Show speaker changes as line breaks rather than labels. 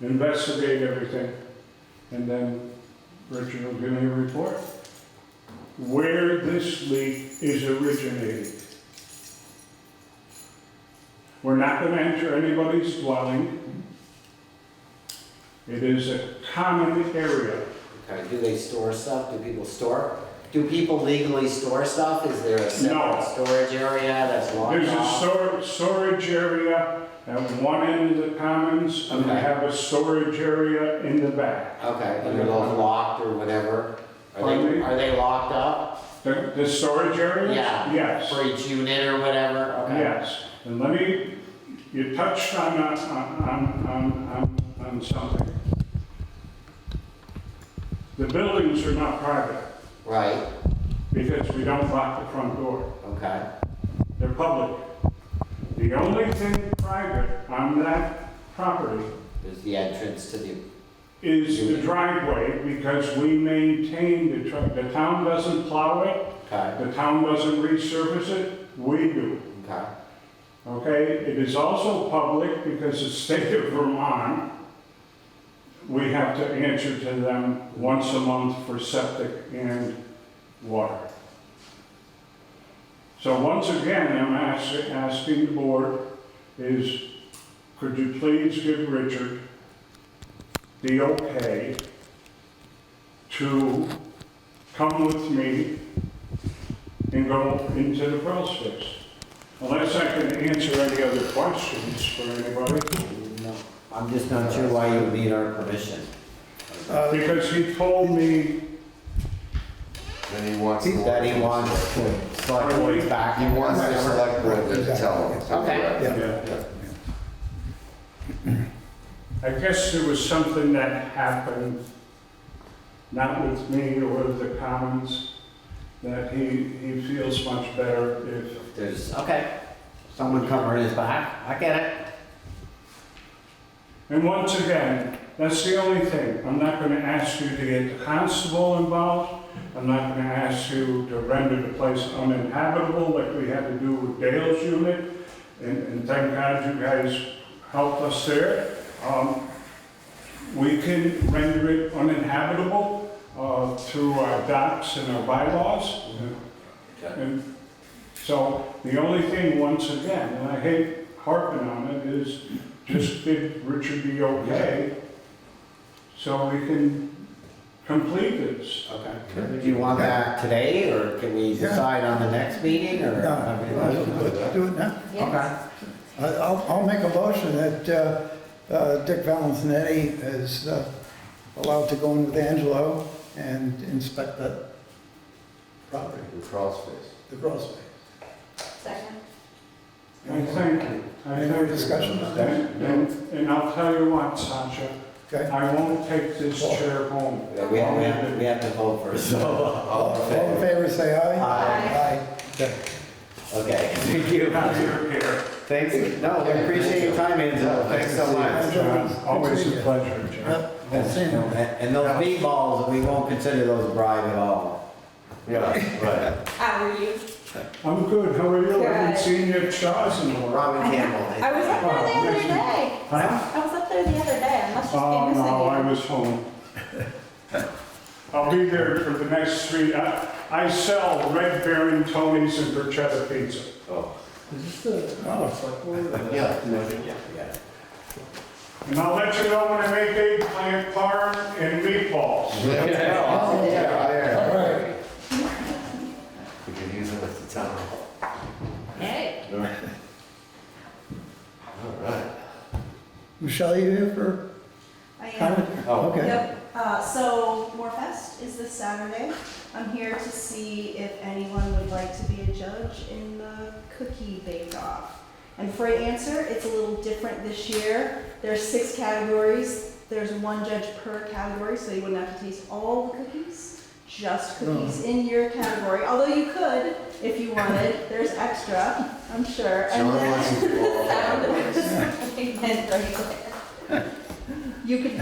investigate everything, and then Richard will give me a report. Where this leak is originating. We're not gonna enter anybody's dwelling. It is a common area.
Okay, do they store stuff? Do people store? Do people legally store stuff? Is there a
No.
separate storage area that's locked
There's a
off?
stor- storage area at one end of the commons, and they
Okay.
have a storage area in the back.
Okay, and they're both locked or whatever? Are
Pardon
they,
me?
are they locked up
The, the storage area?
Yeah.
Yes.
for each unit or whatever? Okay.
Yes, and let me, you touched on, on, on, on, on- on something. The buildings are not private
Right,
because we don't lock the front door.
okay,
They're public. The only thing private on that property
there's the entrance to the,
is the driveway because we maintain the, tr- the town doesn't plow it,
okay,
the town doesn't resurface it, we do.
okay,
Okay, it is also public because the state of Vermont, we have to answer to them once a month for septic and water. So once again, I'm ask- asking the board is, could you please give Richard the okay to come with me and go into the crawl space? Unless I can answer any other questions for anybody,
no, I'm just not sure why you would need our permission.
Uh,
because he told me,
Then he wants. the-
That he wants to select board's back.
He wants the
whatever.
select board to tell him.
Okay.
Yeah.
Yeah. I guess there was something that happened, not with me or with the Commons, that he, he feels much better if,
There's, okay, someone covering his back, I get it.
and once again, that's the only thing. I'm not gonna ask you to get the constable involved. I'm not gonna ask you to render the place uninhabitable like we had to do with Dale's unit. And, and thank God you guys helped us there. Um, we can render it uninhabitable, uh, through our docs and our bylaws. And so the only thing, once again, and I hate harping on it, is just did Richard be okay? So we can complete this.
Okay. Do you want that today, or can we
Yeah.
decide on the next meeting, or?
No,
I mean,
I'll do it now.
Okay.
I- I'll, I'll make a motion that uh, uh, Dick Valentinetti is uh, allowed to go in with Angelo and inspect that property,
The crawl space.
the gross space.
Second.
I think, I
Any more
think.
discussion on that?
And, and- and I'll tell you what, Sasha,
Okay?
I won't take this chair home.
Yeah, We have, we have, we have to vote first, so.
All all in favor, say aye.
Aye.
Okay.
Okay, thank you.
Here, here.
Thanks, no, we appreciate your time, Enzo, thanks so much.
John, uh, Always a pleasure, John.
Yep, I'll see you.
And and those meatballs, we won't consider those a bribe at all.
Yeah, right.
How are you?
I'm good, how are you? I haven't
Good.
seen your chows in a while.
Robin Campbell.
I was up there the other day.
Huh?
I was up there the other day. I must just be
Oh,
missing
no, I
you.
was home. I'll be there for the next three, I, I sell Red Baron, Tony's and Bruschetta Pizza.
oh,
Yeah. Yeah, yeah.
And I'll let you know when I make eggplant parm and meatballs.
Yeah,
All
yeah.
right.
We could use it at the town.
Hey.
All right.
Michelle, you here for
I am.
comment?
Oh,
Okay.
Yep, uh, so Morfest is this Saturday. I'm here to see if anyone would like to be a judge in the cookie bake off. And for an answer, it's a little different this year. There's six categories, there's one judge per category, so you wouldn't have to taste all the cookies, just cookies in your category, although you could if you wanted, there's extra, I'm sure. And
John
then-
wants to go all
Sound of- And right there. You could